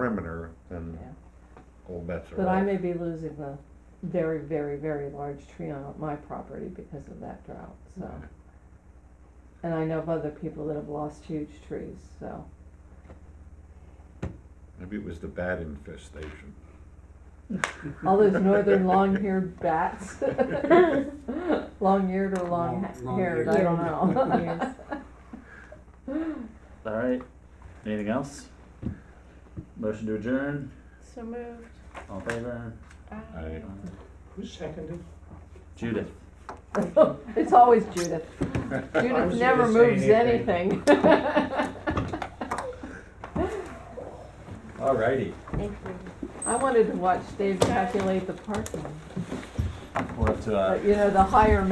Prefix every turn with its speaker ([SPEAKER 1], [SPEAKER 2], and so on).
[SPEAKER 1] perimeter, then
[SPEAKER 2] Yeah.
[SPEAKER 1] all bets are
[SPEAKER 2] But I
[SPEAKER 1] off.
[SPEAKER 2] may be losing the very, very, very large tree on my property because of that drought, so. And I know of other people that have lost huge trees, so.
[SPEAKER 1] Maybe it was the bat infestation.
[SPEAKER 2] All those northern long-haired bats. Long-eared or
[SPEAKER 3] Long- long-eared.
[SPEAKER 2] long-haired, I don't know.
[SPEAKER 4] All right. Anything else? Motion to adjourn.
[SPEAKER 5] So moved.
[SPEAKER 4] All in favor.
[SPEAKER 5] Aye.
[SPEAKER 1] I,
[SPEAKER 3] Who seconded?
[SPEAKER 4] Judith.
[SPEAKER 2] It's always Judith. Judith
[SPEAKER 3] was
[SPEAKER 2] never
[SPEAKER 3] gonna say
[SPEAKER 2] moves anything.
[SPEAKER 3] anything.
[SPEAKER 4] All righty.
[SPEAKER 5] Thank you.
[SPEAKER 2] I wanted to watch Dave calculate the parking,
[SPEAKER 4] We're up to uh,
[SPEAKER 2] but you know, the higher